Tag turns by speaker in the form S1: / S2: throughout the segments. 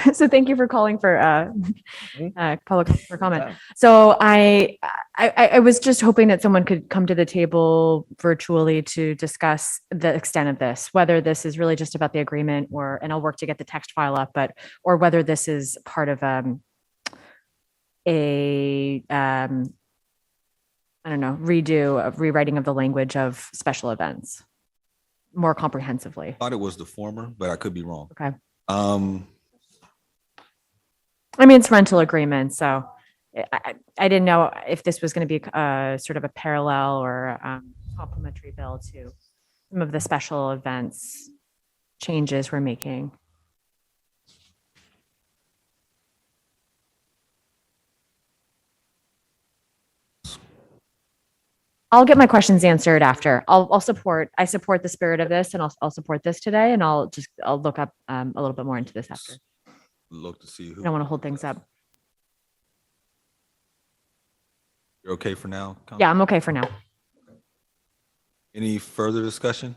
S1: so thank you for calling for uh,
S2: Mhm.
S1: uh, public for comment.
S2: Yeah.
S1: So I, I, I- I was just hoping that someone could come to the table virtually to discuss the extent of this, whether this is really just about the agreement or, and I'll work to get the text file up, but, or whether this is part of, um, a, um, I don't know, redo of rewriting of the language of special events more comprehensively.
S2: Thought it was the former, but I could be wrong.
S1: Okay.
S2: Um,
S1: I mean, it's rental agreement, so I, I, I didn't know if this was going to be uh sort of a parallel or um, complementary bill to some of the special events changes we're making. I'll get my questions answered after. I'll, I'll support, I support the spirit of this and I'll, I'll support this today and I'll just, I'll look up um, a little bit more into this after.
S2: look to see
S1: I
S2: who.
S1: don't want to hold things up.
S2: You're okay for now? Council?
S1: Yeah, I'm okay for now.
S2: Any further discussion?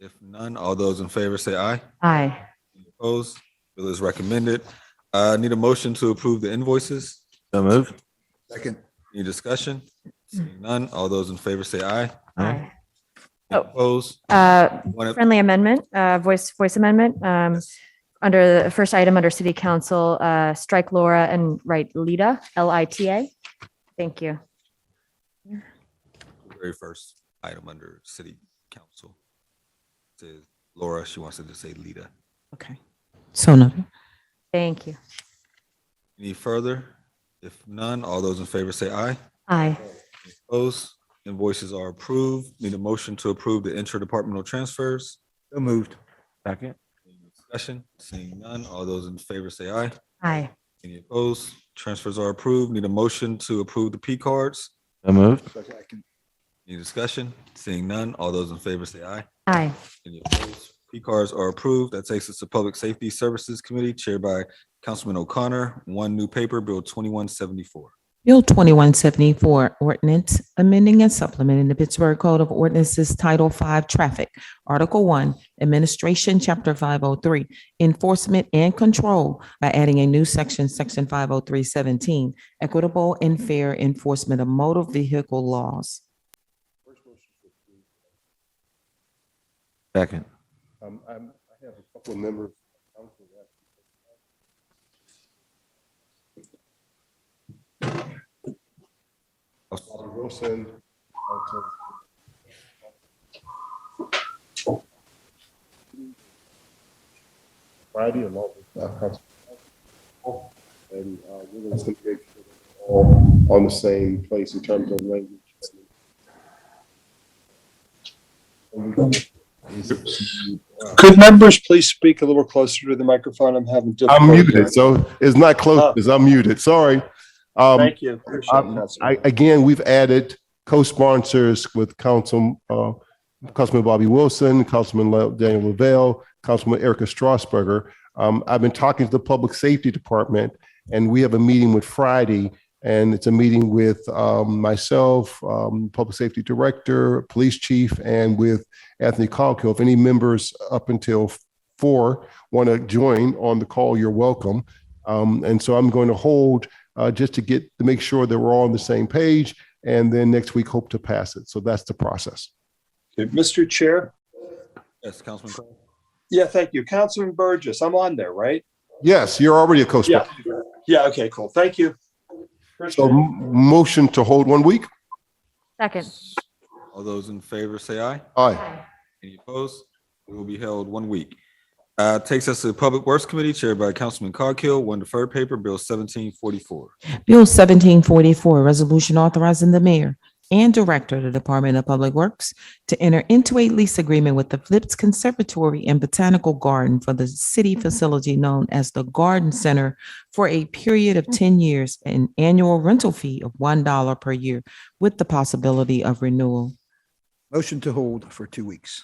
S2: If none, all those in favor say aye.
S1: Aye.
S2: Any Opposed? Bill is recommended. Uh, need a motion to approve the invoices?
S3: So moved.
S2: Second. Any discussion? Seeing none, all those in favor say aye.
S1: Aye.
S2: Any
S1: Oh.
S2: Opposed?
S1: Uh,
S2: One ab-
S1: Friendly amendment, uh, voice, voice amendment, um, under the first item under city council, uh, strike Laura and write Lita, L I T A. Thank you.
S2: Very first item under city council. Says Laura, she wants to just say Lita.
S4: Okay. So noted.
S1: Thank you.
S2: Any further? If none, all those in favor say aye.
S1: Aye.
S2: Opposed? Invoices are approved. Need a motion to approve the interdepartmental transfers.
S3: So moved. Second.
S2: Any Discussion, seeing none. All those in favor say aye.
S1: Aye.
S2: Any opposed? Transfers are approved. Need a motion to approve the P cards.
S3: So moved.
S2: Any discussion? Seeing none. All those in favor say aye.
S1: Aye.
S2: Any opposed? P cards are approved. That takes us to Public Safety Services Committee chaired by Councilman O'Connor. One new paper, Bill twenty-one seventy-four.
S4: Bill 2174, ordinance amending and supplementing the Pittsburgh Code of Ordinances Title 5 Traffic, Article 1, Administration, Chapter 503, Enforcement and Control by adding a new section, Section 50317, Equitable and Fair Enforcement of Motor Vehicle Laws.
S3: Second.
S5: Um, I'm, I have a couple of members. of council that- Robert Wilson. Council- Friday along with, uh, Council- And, uh, we're gonna make sure that we're all on the same place in terms of language. And we're gonna-
S6: Could members please speak a little closer to the microphone? I'm having difficulty.
S5: I'm muted, so it's not close, it's unmuted, sorry. Um,
S6: Thank you. Appreciate it,
S5: I,
S6: Councilman.
S5: I- again, we've added co-sponsors with Council, uh, Councilman Bobby Wilson, Councilman Le- Daniel Lavelle, Councilman Erica Strasberger. Um, I've been talking to the Public Safety Department, and we have a meeting with Friday, and it's a meeting with, um, myself, um, Public Safety Director, Police Chief, and with Anthony Colkill. If any members up until four want to join on the call, you're welcome. Um, and so I'm going to hold uh, just to get to make sure that we're all on the same page. And then next week, hope to pass it. So that's the process.
S6: Okay, Mr. Chair?
S2: Yes, Councilman Craig?
S6: Yeah, thank you. Councilman Burgess, I'm on there, right?
S5: Yes, you're already a co-sponsor.
S6: Yeah. Yeah, okay, cool. Thank you.
S5: So m- motion to hold one week.
S1: Second.
S2: All those in favor say aye.
S5: Aye.
S2: Any opposed? It will be held one week. Uh, takes us to the Public Works Committee chaired by Councilman Coghill, one deferred paper, Bill seventeen forty-four.
S4: Bill 1744, resolution authorizing the mayor and director of the Department of Public Works to enter into a lease agreement with the Flips Conservatory and Botanical Garden for the city facility known as the Garden Center for a period of 10 years, at an annual rental fee of $1 per year with the possibility of renewal.
S7: Motion to hold for two weeks.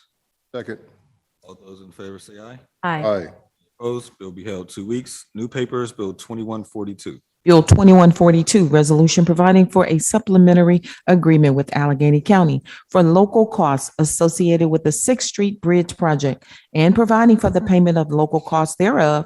S5: Second.
S2: All those in favor say aye.
S1: Aye.
S5: Aye.
S2: Opposed? Bill be held two weeks. New papers, Bill twenty-one forty-two.
S4: Bill 2142, resolution providing for a supplementary agreement with Allegheny County for local costs associated with the Sixth Street Bridge Project and providing for the payment of local costs thereof